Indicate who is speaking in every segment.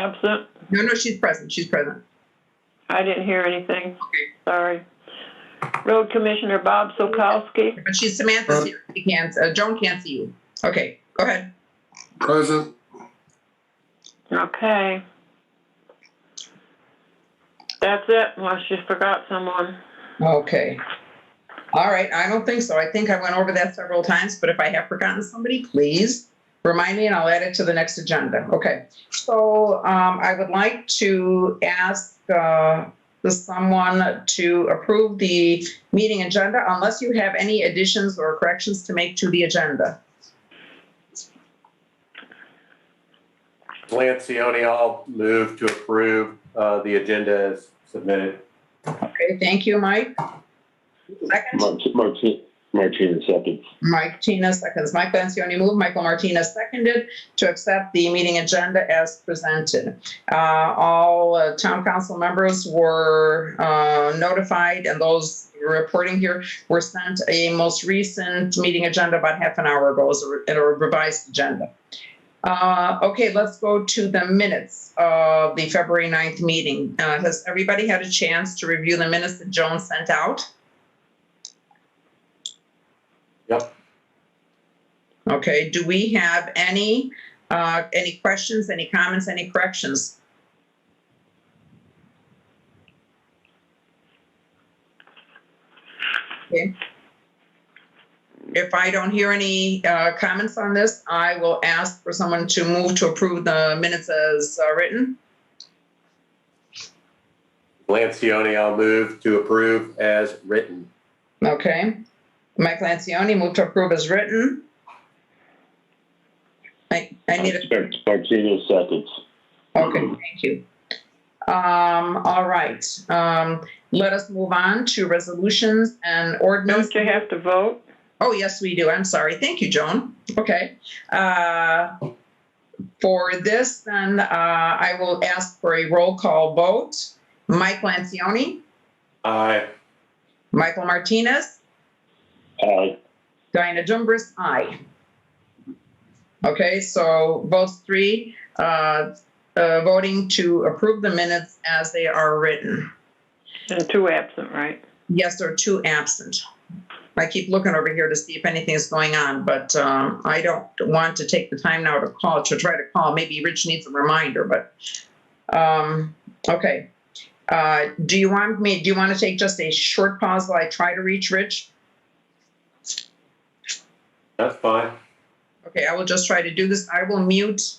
Speaker 1: absent?
Speaker 2: No, no, she's present, she's present.
Speaker 1: I didn't hear anything.
Speaker 2: Okay.
Speaker 1: Sorry. Road Commissioner Bob Sokowski,
Speaker 2: But she's Samantha's here, she can't, uh, Joan can't see you. Okay, go ahead.
Speaker 3: Present,
Speaker 1: okay. That's it, unless you forgot someone.
Speaker 2: Okay. All right, I don't think so. I think I went over that several times, but if I have forgotten somebody, please remind me and I'll add it to the next agenda. Okay. So um, I would like to ask uh, someone to approve the meeting agenda unless you have any additions or corrections to make to the agenda.
Speaker 4: Lancioni, I'll move to approve uh, the agenda as submitted.
Speaker 2: Okay, thank you, Mike. Second,
Speaker 5: Martin, Martinez second.
Speaker 2: Mike Tina seconds. Mike Lencioni moved, Michael Martinez seconded to accept the meeting agenda as presented. Uh, All uh, town council members were uh, notified and those reporting here were sent a most recent meeting agenda about half an hour ago as a re- and a revised agenda. Uh, Okay, let's go to the minutes of the February 9th meeting. Uh, Has everybody had a chance to review the minutes that Joan sent out?
Speaker 4: Yep.
Speaker 2: Okay, do we have any, uh, any questions, any comments, any corrections? Okay. If I don't hear any, uh, comments on this, I will ask for someone to move to approve the minutes as uh, written.
Speaker 4: Lancioni, I'll move to approve as written.
Speaker 2: Okay. Mike Lancioni, move to approve as written. I, I need a,
Speaker 5: Martinez seconds.
Speaker 2: okay, thank you. Um, all right, um, let us move on to resolutions and ordinance.
Speaker 1: Don't you have to vote?
Speaker 2: Oh, yes, we do. I'm sorry. Thank you, Joan. Okay. Uh, For this, then, uh, I will ask for a roll call vote. Mike Lancioni,
Speaker 4: Aye.
Speaker 2: Michael Martinez,
Speaker 5: Aye.
Speaker 2: Diana Jumbris, aye. Okay, so both three uh, uh, voting to approve the minutes as they are written.
Speaker 1: And two absent, right?
Speaker 2: Yes, there are two absent. I keep looking over here to see if anything's going on, but um, I don't want to take the time now to call, to try to call. Maybe Rich needs a reminder, but, um, okay. Uh, Do you want me, do you want to take just a short pause while I try to reach Rich?
Speaker 4: That's fine.
Speaker 2: Okay, I will just try to do this. I will mute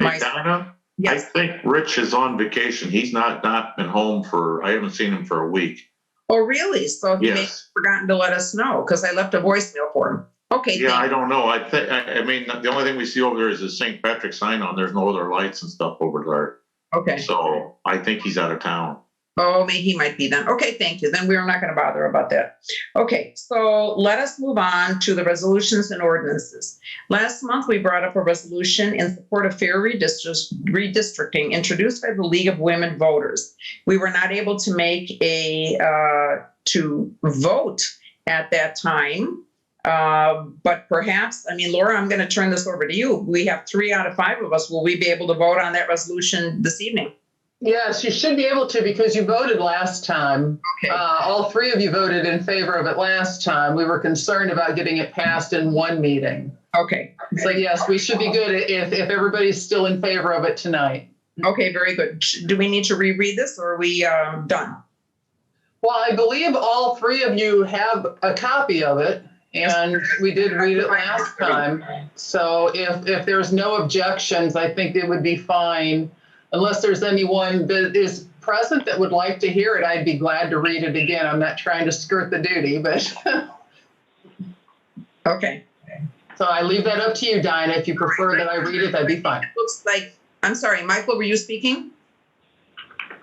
Speaker 2: my,
Speaker 6: Hey, Donna, I
Speaker 2: yes.
Speaker 6: think Rich is on vacation. He's not, not been home for, I haven't seen him for a week.
Speaker 2: Oh, really? So he may have
Speaker 6: Yes.
Speaker 2: forgotten to let us know because I left a voicemail for him. Okay,
Speaker 6: Yeah, I
Speaker 2: thank,
Speaker 6: don't know. I think, I, I mean, the only thing we see over there is the St. Patrick sign on. There's no other lights and stuff over there.
Speaker 2: okay.
Speaker 6: So I think he's out of town.
Speaker 2: Oh, maybe he might be then. Okay, thank you. Then we're not going to bother about that. Okay, so let us move on to the resolutions and ordinances. Last month, we brought up a resolution in support of fair redistrict- redistricting introduced by the League of Women Voters. We were not able to make a, uh, to vote at that time. Uh, but perhaps, I mean, Laura, I'm going to turn this over to you. We have three out of five of us. Will we be able to vote on that resolution this evening?
Speaker 7: Yes, you should be able to because you voted last time.
Speaker 2: Okay.
Speaker 7: Uh, all three of you voted in favor of it last time. We were concerned about getting it passed in one meeting.
Speaker 2: Okay.
Speaker 7: So yes, we should be good i- if, if everybody's still in favor of it tonight.
Speaker 2: Okay, very good. Sh- Do we need to reread this or are we um, done?
Speaker 7: Well, I believe all three of you have a copy of it and we did read it last time. So if, if there's no objections, I think it would be fine. Unless there's anyone that is present that would like to hear it, I'd be glad to read it again. I'm not trying to skirt the duty, but, so
Speaker 2: Okay.
Speaker 7: I leave that up to you, Dinah. If you prefer that I read it, that'd be fine.
Speaker 2: Looks like, I'm sorry, Michael, were you speaking?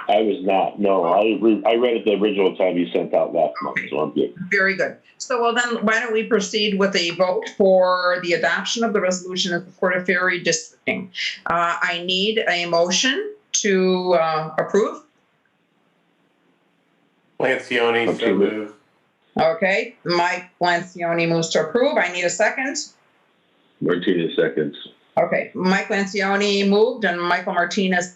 Speaker 5: I was not, no, I, re- I read it the original time you sent out last month, so I'm good.
Speaker 2: Very good. So well then, why don't we proceed with a vote for the adoption of the resolution in support of fair redistricting? Uh, I need a motion to uh, approve.
Speaker 4: Lancioni, so
Speaker 5: Absolutely.
Speaker 4: move.
Speaker 2: Okay, Mike Lancioni moves to approve. I need a second.
Speaker 5: Martinez seconds.
Speaker 2: Okay, Mike Lancioni moved and Michael Martinez